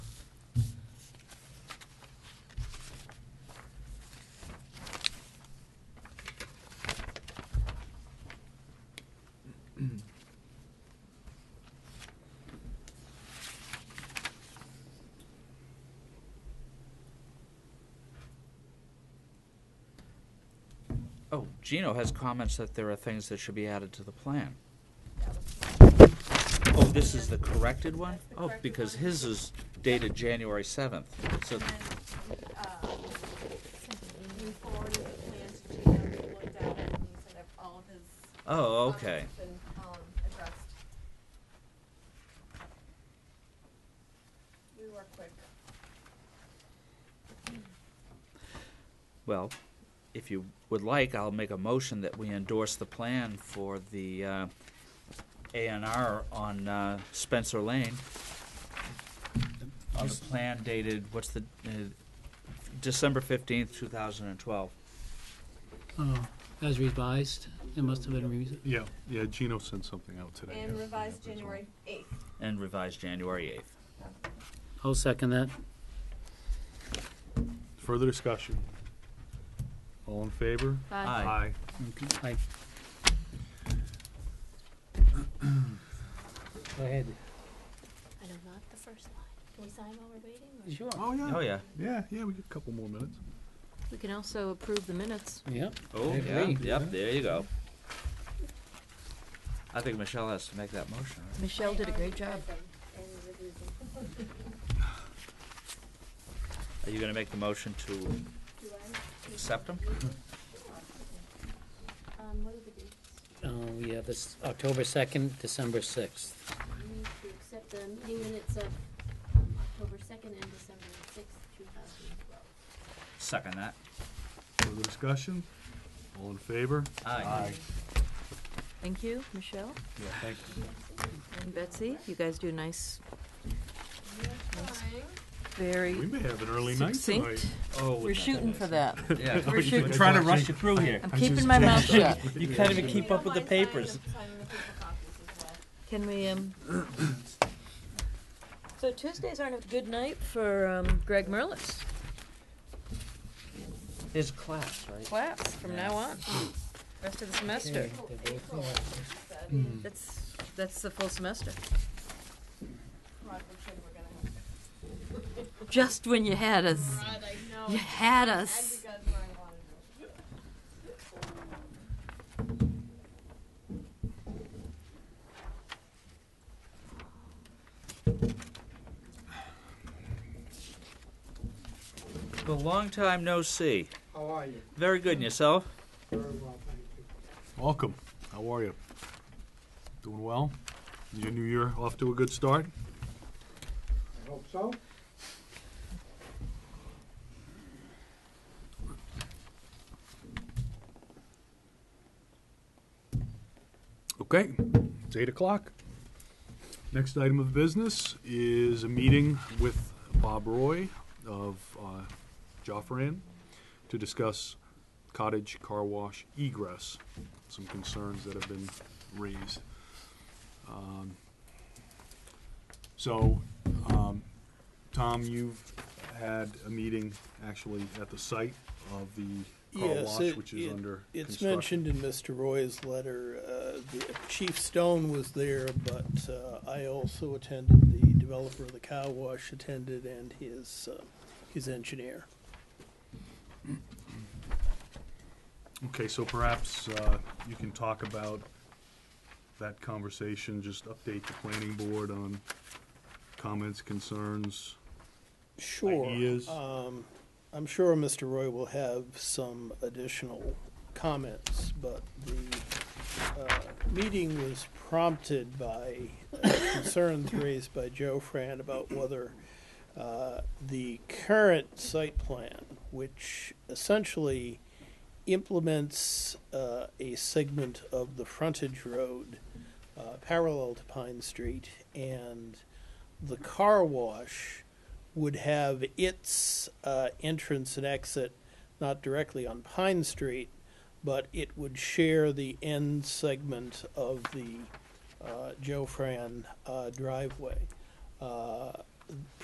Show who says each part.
Speaker 1: Oh, Gino has comments that there are things that should be added to the plan. Oh, this is the corrected one?
Speaker 2: That's the
Speaker 1: Oh,
Speaker 2: corrected
Speaker 1: because
Speaker 2: one.
Speaker 1: his is dated January seventh, so,
Speaker 2: And then, um, we forwarded the plans to him, he looked at it, and he said that all of his.
Speaker 1: oh,
Speaker 2: comments
Speaker 1: okay.
Speaker 2: have been, um, addressed. We were quick.
Speaker 1: Well, if you would like, I'll make a motion that we endorse the plan for the A and R on uh, Spencer Lane. On the plan dated, what's the, uh, December fifteenth, two thousand and twelve.
Speaker 3: Oh, as revised, it must have been revised.
Speaker 4: Yeah, yeah, Gino sent something out today.
Speaker 2: And
Speaker 4: yesterday, I
Speaker 2: revised
Speaker 4: think it was.
Speaker 2: January eighth.
Speaker 1: and revised January 8th.
Speaker 3: I'll second that.
Speaker 4: Further discussion? All in favor?
Speaker 1: Aye.
Speaker 2: Uh,
Speaker 3: Aye. Go ahead.
Speaker 5: I know not the first line. Can we sign while we're waiting? or-
Speaker 3: Sure.
Speaker 4: Oh, yeah.
Speaker 1: Oh, yeah.
Speaker 4: Yeah, yeah, we got a couple more minutes.
Speaker 5: We can also approve the minutes.
Speaker 3: Yep.
Speaker 1: Oh,
Speaker 3: I
Speaker 1: yeah.
Speaker 3: agree.
Speaker 1: Yep, there you go. I think Michelle has to make that motion. right?
Speaker 5: Michelle did a great job.
Speaker 1: Are you going to make the motion to accept them?
Speaker 2: Um, what are the dates?
Speaker 3: Uh, we have this October second, December sixth.
Speaker 6: We need to accept the meeting minutes of um, October second and December sixth, two thousand and twelve.
Speaker 1: Second that.
Speaker 4: Further discussion? All in favor?
Speaker 1: Aye.
Speaker 5: Thank you, Michelle
Speaker 4: Yeah, thank you.
Speaker 5: and Betsy. You guys do nice,
Speaker 2: Trying.
Speaker 4: We
Speaker 5: very
Speaker 4: may have an early night
Speaker 5: succinct.
Speaker 4: tonight.
Speaker 1: Oh,
Speaker 5: We're shooting for that.
Speaker 1: Yeah.
Speaker 5: We're
Speaker 1: We're
Speaker 5: shooting.
Speaker 1: trying to rush it through here.
Speaker 5: I'm keeping my mouth shut.
Speaker 1: You can't even keep
Speaker 2: You
Speaker 1: up with
Speaker 2: don't
Speaker 1: the
Speaker 2: mind signing
Speaker 1: papers.
Speaker 2: signing the paper copies as well.
Speaker 5: Can we, um, so Tuesdays aren't a good night for, um, Greg Merlis.
Speaker 1: His class, right?
Speaker 5: Class from now on, rest of the semester.
Speaker 2: Oh,
Speaker 4: Hmm.
Speaker 5: That's, that's the full semester.
Speaker 2: Roger said we're gonna have to.
Speaker 5: Just when you had us,
Speaker 2: Rod, I know.
Speaker 5: you had
Speaker 2: And you
Speaker 5: us.
Speaker 2: guys were in Waterville.
Speaker 1: The long time no see.
Speaker 7: How are you?
Speaker 1: Very good, and yourself?
Speaker 7: Very well, thank you.
Speaker 4: Welcome. How are you? Doing well? Is Your new year off to a good start?
Speaker 7: I hope so.
Speaker 4: Okay, it's eight o'clock. Next item of business is a meeting with Bob Roy of uh, Joffran to discuss cottage car wash egress, some concerns that have been raised. Um, So, um, Tom, you've had a meeting actually at the site of the car
Speaker 8: Yes,
Speaker 4: wash,
Speaker 8: it-
Speaker 4: which is
Speaker 8: it-
Speaker 4: under construction.
Speaker 8: It's mentioned in Mr. Roy's letter, uh, the- Chief Stone was there, but uh, I also attended, the developer of the cow wash attended, and his, uh, his engineer.
Speaker 4: Okay, so perhaps uh, you can talk about that conversation, just update the planning board on comments, concerns.
Speaker 8: Sure.
Speaker 4: Ideas?
Speaker 8: Um, I'm sure Mr. Roy will have some additional comments, but the uh, meeting was prompted by uh, concerns raised by Joe Fran about whether uh, the current site plan, which essentially implements uh, a segment of the frontage road uh, parallel to Pine Street and the car wash would have its uh, entrance and exit not directly on Pine Street, but it would share the end segment of the uh, Joe Fran uh, driveway. Uh,